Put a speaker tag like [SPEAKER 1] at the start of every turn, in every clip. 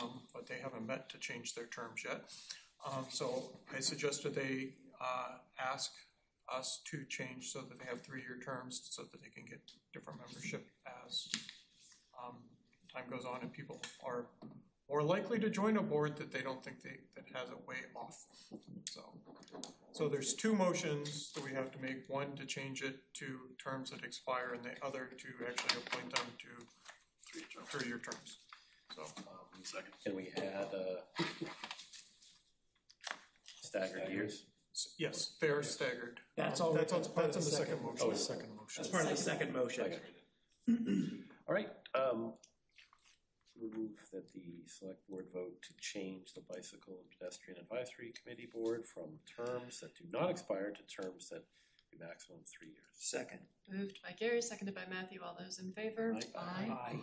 [SPEAKER 1] um, haven't met to change their terms yet. Um, so I suggested they, uh, ask us to change so that they have three-year terms, so that they can get different membership as, um, time goes on and people are more likely to join a board that they don't think they, that has a way off, so. So there's two motions that we have to make, one to change it to terms that expire, and the other to actually appoint them to three-year terms. So,
[SPEAKER 2] Um, Second.
[SPEAKER 3] Can we add, uh, staggered years?
[SPEAKER 1] s- yes, they are staggered. Um,
[SPEAKER 4] That's all,
[SPEAKER 1] That's
[SPEAKER 4] that's
[SPEAKER 1] on,
[SPEAKER 4] part of
[SPEAKER 1] that's
[SPEAKER 4] the
[SPEAKER 1] on the
[SPEAKER 4] second,
[SPEAKER 1] second motion.
[SPEAKER 3] Oh,
[SPEAKER 1] second motion.
[SPEAKER 4] that's part of the second motion.
[SPEAKER 3] Okay. All right, um, we move that the select board vote to change the bicycle and pedestrian advisory committee board from terms that do not expire to terms that be maximum three years.
[SPEAKER 4] Second.
[SPEAKER 5] Moved by Gary, seconded by Matthew. All those in favor?
[SPEAKER 3] Aye.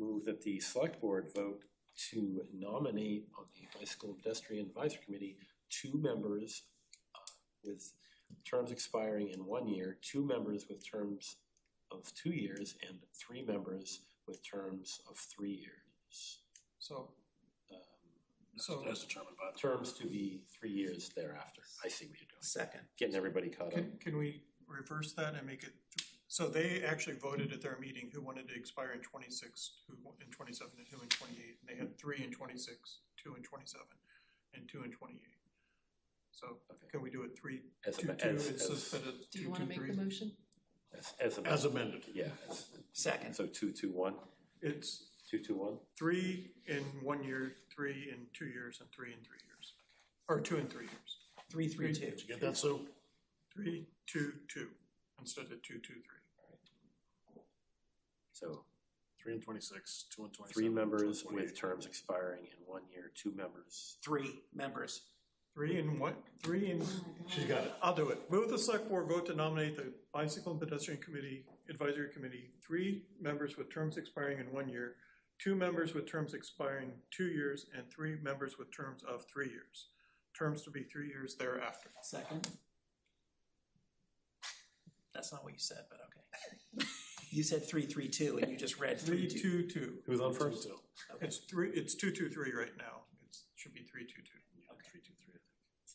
[SPEAKER 3] Move that the select board vote to nominate on the bicycle and pedestrian advisory committee two members uh, with terms expiring in one year, two members with terms of two years, and three members with terms of three years.
[SPEAKER 1] So,
[SPEAKER 3] Um, uh,
[SPEAKER 1] so,
[SPEAKER 2] As determined by the.
[SPEAKER 3] Terms to be three years thereafter. I see what you're doing.
[SPEAKER 4] Second.
[SPEAKER 3] Getting everybody caught up.
[SPEAKER 1] can, can we reverse that and make it, th- so they actually voted at their meeting who wanted to expire in twenty-six, who in twenty-seven, and who in twenty-eight. And they had three in twenty-six, two in twenty-seven, and two in twenty-eight. So
[SPEAKER 3] Okay.
[SPEAKER 1] can we do it three,
[SPEAKER 3] As
[SPEAKER 1] two, two,
[SPEAKER 3] am- as-
[SPEAKER 1] and
[SPEAKER 3] as-
[SPEAKER 1] suspend it
[SPEAKER 5] Do you
[SPEAKER 1] two,
[SPEAKER 5] want to
[SPEAKER 1] two,
[SPEAKER 5] make
[SPEAKER 1] three?
[SPEAKER 5] the motion?
[SPEAKER 3] As, as
[SPEAKER 2] As
[SPEAKER 3] amended.
[SPEAKER 2] amended.
[SPEAKER 3] Yeah. as-
[SPEAKER 4] Second.
[SPEAKER 3] So two, two, one,
[SPEAKER 1] It's
[SPEAKER 3] two, two, one.
[SPEAKER 1] three in one year, three in two years, and three in three years. Or two in three years.
[SPEAKER 4] Three, three, two.
[SPEAKER 2] Did you get that, Sue?
[SPEAKER 1] Three, two, two, instead of two, two, three.
[SPEAKER 3] So
[SPEAKER 2] Three and twenty-six, two and twenty-seven.
[SPEAKER 3] three members
[SPEAKER 2] two and
[SPEAKER 3] with
[SPEAKER 2] 28.
[SPEAKER 3] terms expiring in one year, two members.
[SPEAKER 4] Three members.
[SPEAKER 1] Three in what? Three in,
[SPEAKER 2] She got it.
[SPEAKER 1] I'll do it. Move the select board vote to nominate the Bicycle and Pedestrian Committee Advisory Committee, three members with terms expiring in one year, two members with terms expiring two years, and three members with terms of three years. Terms to be three years thereafter.
[SPEAKER 4] Second. That's not what you said, but okay. You said three, three, two, and you just read
[SPEAKER 1] Three,
[SPEAKER 4] three, two.
[SPEAKER 1] two, two.
[SPEAKER 3] Who's on
[SPEAKER 2] Two, two.
[SPEAKER 4] Okay.
[SPEAKER 1] It's three, it's two, two, three right now. It should be three, two, two.
[SPEAKER 2] Three, two, three,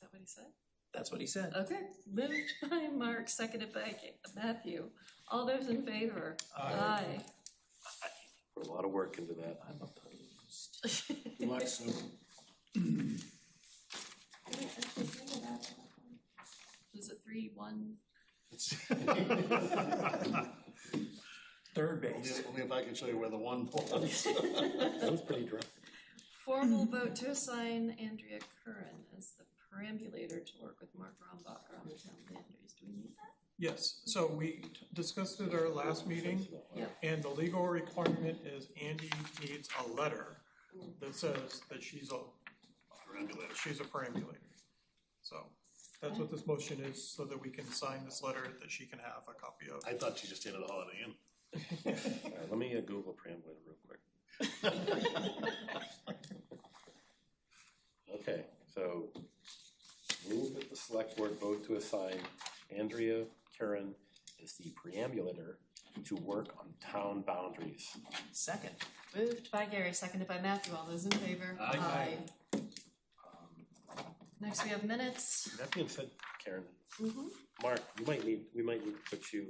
[SPEAKER 2] I
[SPEAKER 5] Is
[SPEAKER 2] think.
[SPEAKER 5] that what he said?
[SPEAKER 4] That's what he said.
[SPEAKER 5] Okay, moved by Mark, seconded by Ga- Matthew. All those in favor? Aye.
[SPEAKER 3] Put a lot of work into that.
[SPEAKER 4] I'm opposed.
[SPEAKER 2] Good luck, Sue.
[SPEAKER 5] Was it three, one?
[SPEAKER 4] Third
[SPEAKER 2] Only
[SPEAKER 4] base.
[SPEAKER 2] only if I can show you where the one was.
[SPEAKER 3] That was pretty dry.
[SPEAKER 5] Formal vote to assign Andrea Curran as the perambulator to work with Mark Rombacher on the town boundaries. Do we need that?
[SPEAKER 1] Yes, so we discussed at our last meeting,
[SPEAKER 5] Yeah.
[SPEAKER 1] and the legal requirement is Andy needs a letter that says that she's a,
[SPEAKER 2] Perambulator.
[SPEAKER 1] she's a perambulator. So, that's what this motion is, so that we can sign this letter that she can have a copy of.
[SPEAKER 2] I thought she just stayed at a Holiday Inn.
[SPEAKER 3] All right, let me uh, Google preamble real quick. Okay, so move that the select board vote to assign Andrea Karen as the preambulator to work on town boundaries.
[SPEAKER 4] Second.
[SPEAKER 5] Moved by Gary, seconded by Matthew. All those in favor? Aye.
[SPEAKER 3] Um,
[SPEAKER 5] Next, we have minutes.
[SPEAKER 3] That being said, Karen,
[SPEAKER 5] Mm-hmm.
[SPEAKER 3] Mark, you might need, we might need to put you,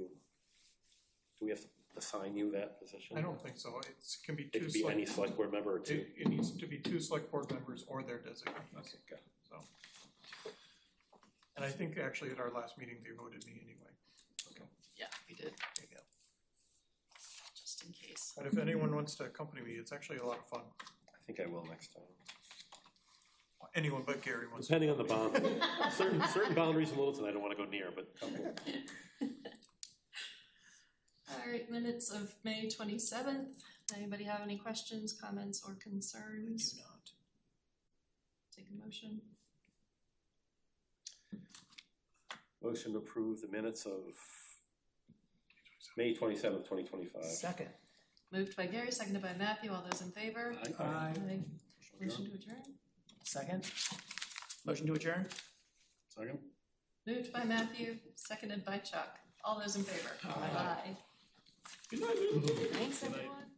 [SPEAKER 3] do we have to assign you that position?
[SPEAKER 1] I don't think so, it's, can be
[SPEAKER 3] It
[SPEAKER 1] two
[SPEAKER 3] could be any
[SPEAKER 1] select,
[SPEAKER 3] select board member or two.
[SPEAKER 1] it, it needs to be two select board members or their designees,
[SPEAKER 3] Okay, got it.
[SPEAKER 1] so. And I think actually at our last meeting, they voted me anyway.
[SPEAKER 5] Yeah, we did,
[SPEAKER 1] There you go.
[SPEAKER 5] just in case.
[SPEAKER 1] And if anyone wants to accompany me, it's actually a lot of fun.
[SPEAKER 3] I think I will next time.
[SPEAKER 1] Anyone but Gary wants to.
[SPEAKER 3] Depending on the boundary. Certain, certain boundaries in Littleton I don't want to go near, but
[SPEAKER 5] All right, minutes of May twenty-seventh. Anybody have any questions, comments, or concerns?
[SPEAKER 4] Do not.
[SPEAKER 5] Take a motion.
[SPEAKER 3] Motion to approve the minutes of May twenty-seventh, twenty twenty-five.
[SPEAKER 4] Second.
[SPEAKER 5] Moved by Gary, seconded by Matthew. All those in favor?
[SPEAKER 4] Aye.
[SPEAKER 5] Motion to adjourn.
[SPEAKER 4] Second. Motion to adjourn?
[SPEAKER 2] Second?
[SPEAKER 5] Moved by Matthew, seconded by Chuck. All those in favor? Aye. Thanks, everyone.